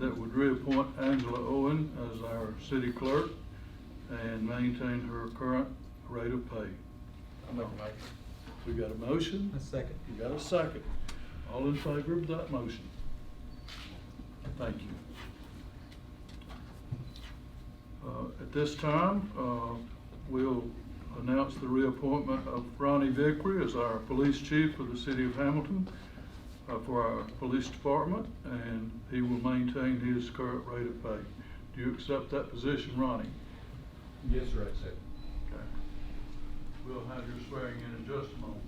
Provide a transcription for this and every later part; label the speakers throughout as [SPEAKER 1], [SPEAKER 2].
[SPEAKER 1] would reappoint Angela Owen as our city clerk and maintain her current rate of pay.
[SPEAKER 2] I'll make a motion.
[SPEAKER 1] We got a motion?
[SPEAKER 3] A second.
[SPEAKER 1] You got a second. All in favor of that motion? Thank you. Uh, At this time, uh, we'll announce the reappointment of Ronnie Vickery as our police chief for the city of Hamilton uh, for our police department, and he will maintain his current rate of pay. Do you accept that position, Ronnie?
[SPEAKER 2] Yes, sir, I said.
[SPEAKER 1] Okay. We'll have your swearing in in just a moment.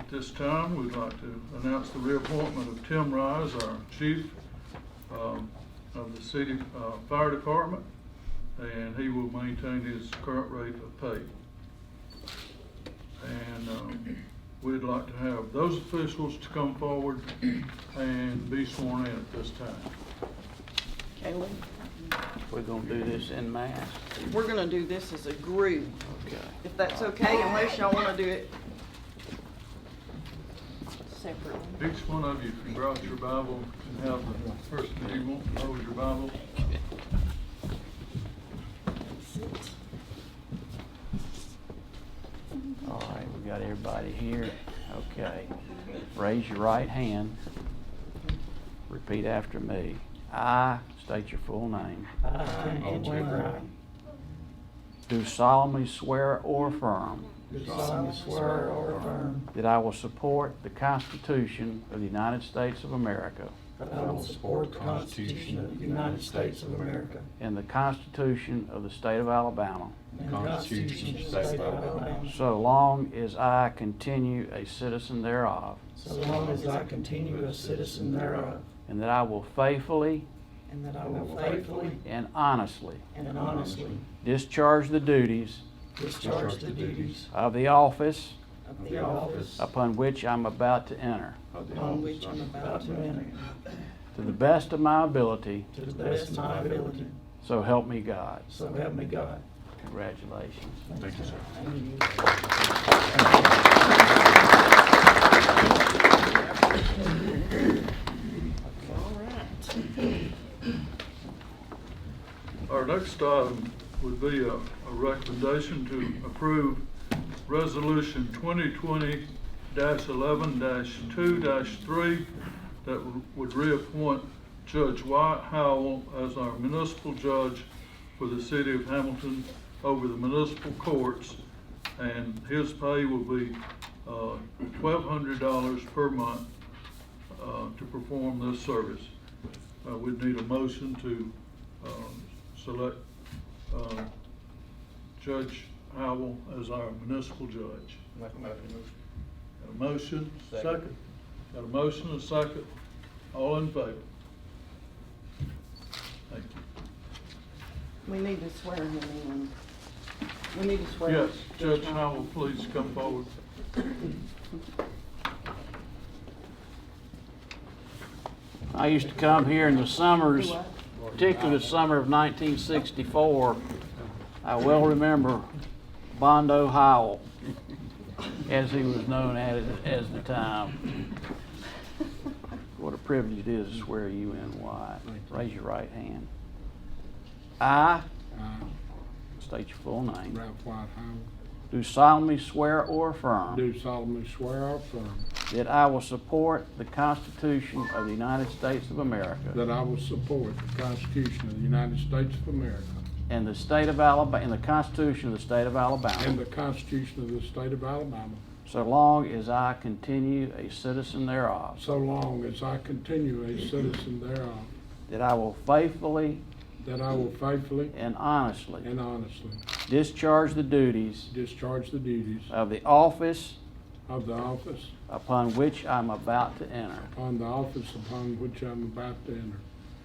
[SPEAKER 1] At this time, we'd like to announce the reappointment of Tim Rise, our chief um, of the city uh, fire department, and he will maintain his current rate of pay. And um, we'd like to have those officials to come forward and be sworn in at this time.
[SPEAKER 4] Kaylee,
[SPEAKER 5] We're gonna do this in mass.
[SPEAKER 4] we're gonna do this as a group,
[SPEAKER 5] Okay.
[SPEAKER 4] if that's okay, unless y'all wanna do it separately.
[SPEAKER 1] Each one of you can brought your Bible and have the person that you want to hold your Bible.
[SPEAKER 5] All right, we got everybody here. Okay. Raise your right hand. Repeat after me. I state your full name.
[SPEAKER 2] Andrew Brown.
[SPEAKER 5] Do solemnly swear or affirm
[SPEAKER 3] Do solemnly swear or affirm
[SPEAKER 5] that I will support the Constitution of the United States of America
[SPEAKER 3] that I will support the Constitution of the United States of America
[SPEAKER 5] and the Constitution of the State of Alabama
[SPEAKER 3] and the Constitution of the State of Alabama,
[SPEAKER 5] so long as I continue a citizen thereof,
[SPEAKER 3] so long as I continue a citizen thereof,
[SPEAKER 5] and that I will faithfully
[SPEAKER 3] and that I will faithfully
[SPEAKER 5] and honestly
[SPEAKER 3] and honestly
[SPEAKER 5] discharge the duties
[SPEAKER 3] discharge the duties
[SPEAKER 5] of the office
[SPEAKER 3] of the office
[SPEAKER 5] upon which I'm about to enter
[SPEAKER 3] upon which I'm about to enter,
[SPEAKER 5] to the best of my ability,
[SPEAKER 3] to the best of my ability,
[SPEAKER 5] so help me God.
[SPEAKER 3] so help me God.
[SPEAKER 5] Congratulations.
[SPEAKER 2] Thank you, sir.
[SPEAKER 1] Our next item would be a, a recommendation to approve Resolution twenty twenty eleven two three that w- would reappoint Judge Wyatt Howell as our municipal judge for the city of Hamilton over the municipal courts. And his pay will be, uh, twelve hundred dollars per month, uh, to perform this service. Uh, we'd need a motion to, um, select, um, Judge Howell as our municipal judge.
[SPEAKER 2] Make a motion.
[SPEAKER 1] Got a motion?
[SPEAKER 2] Second.
[SPEAKER 1] Got a motion and a second? All in favor? Thank you.
[SPEAKER 4] We need to swear him in. We need to swear.
[SPEAKER 1] Yes, Judge Howell, please come forward.
[SPEAKER 5] I used to come here in the summers,
[SPEAKER 4] Do
[SPEAKER 5] particularly the summer of 1964. I well remember Bondo Howell, as he was known at it as the time. What a privilege it is to swear you in, Wyatt. Raise your right hand. I,
[SPEAKER 6] I,
[SPEAKER 5] state your full name,
[SPEAKER 6] Uh, Ralph White Howard,
[SPEAKER 5] do solemnly swear or affirm
[SPEAKER 6] do solemnly swear or affirm
[SPEAKER 5] That I will support the Constitution of the United States of
[SPEAKER 6] that
[SPEAKER 5] America
[SPEAKER 6] I will support the Constitution of the United States of America
[SPEAKER 5] and the state of Alabama, and the Constitution of the state of
[SPEAKER 6] and the
[SPEAKER 5] Alabama,
[SPEAKER 6] Constitution of the State of Alabama,
[SPEAKER 5] so long as I continue a citizen thereof.
[SPEAKER 6] so long as I continue a citizen thereof,
[SPEAKER 5] That I will faithfully
[SPEAKER 6] that I will faithfully
[SPEAKER 5] and honestly
[SPEAKER 6] and honestly
[SPEAKER 5] discharge the duties
[SPEAKER 6] discharge the duties
[SPEAKER 5] of the office
[SPEAKER 6] of the office
[SPEAKER 5] upon which I'm about to enter,
[SPEAKER 6] upon the office upon which I'm about to enter,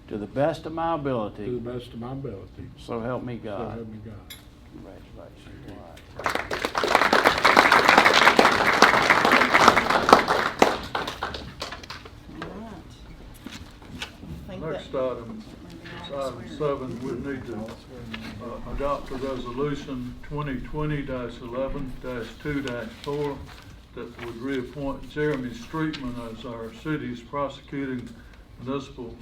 [SPEAKER 5] to the best of my
[SPEAKER 6] to
[SPEAKER 5] ability,
[SPEAKER 6] the best of my ability,
[SPEAKER 5] so help me
[SPEAKER 6] so help
[SPEAKER 5] God.
[SPEAKER 6] me God.
[SPEAKER 5] Congratulations. Wyatt.
[SPEAKER 4] All right. I think that-
[SPEAKER 1] Next item, is item seven, we need to uh, adopt a resolution twenty twenty eleven two four that would reappoint Jeremy Streetman as our city's prosecuting municipal